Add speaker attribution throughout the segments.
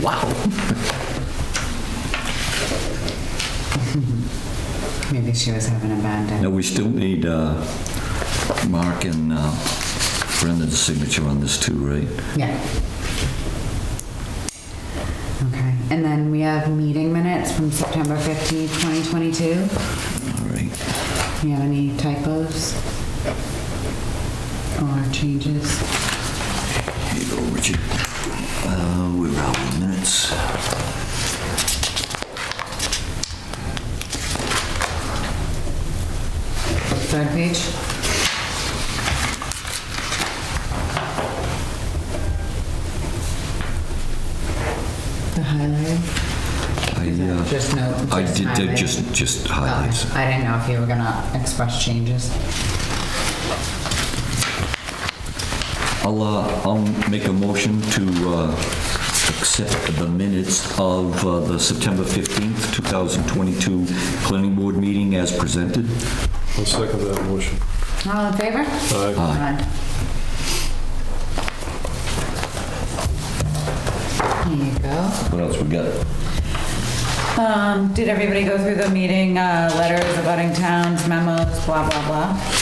Speaker 1: Wow.
Speaker 2: Maybe she was having a bad day.
Speaker 3: Now, we still need uh, Mark and uh, Brendan's signature on this too, right?
Speaker 2: Yeah. Okay, and then we have meeting minutes from September 15th, 2022.
Speaker 3: All right.
Speaker 2: You have any typos? Or changes?
Speaker 3: Here you go, Richard. Uh, We're out of minutes.
Speaker 2: Third page? The highlight?
Speaker 3: I, uh,
Speaker 2: Just no, just
Speaker 3: I did did
Speaker 2: highlight?
Speaker 3: just, just
Speaker 2: Oh,
Speaker 3: highlights.
Speaker 2: I didn't know if you were gonna express changes.
Speaker 3: I'll, uh, I'll make a motion to uh, accept the minutes of uh, the September 15th, 2022 Planning Board meeting as presented.
Speaker 4: I'll second that motion.
Speaker 2: All in favor?
Speaker 4: Aye.
Speaker 2: Aye. There you go.
Speaker 3: What else we got?
Speaker 2: Um, did everybody go through the meeting, uh, letters abutting towns, memos, blah, blah, blah?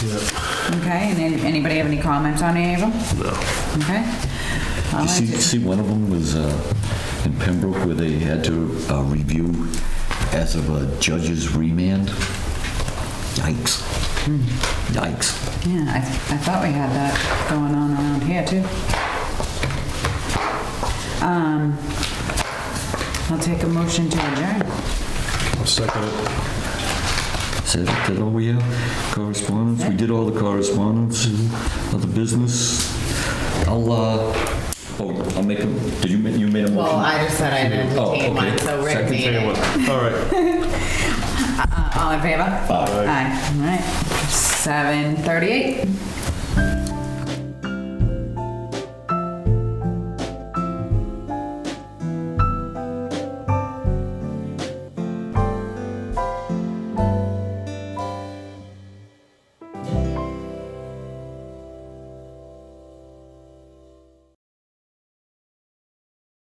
Speaker 2: Okay, and then anybody have any comments on any of them? No. Okay. I'll
Speaker 3: You see,
Speaker 2: entertain-
Speaker 3: see, one of them was uh, in Pembroke where they had to uh, review as of a judge's remand. Yikes. Yikes.
Speaker 2: Yeah, I, I thought we had that going on around here too. Um, I'll take a motion to adjourn.
Speaker 4: I'll second it.
Speaker 3: Is that that all we have? Correspondence? We did all the correspondence of the business. I'll, uh, oh, I'll make a, did you, ma- you made a motion?
Speaker 2: just said I'd
Speaker 3: Oh, entertain one, okay. so Rick Second, made
Speaker 4: Second one. All right.
Speaker 2: All in favor?
Speaker 4: Aye.
Speaker 2: Aye, all right. Seven thirty-eight.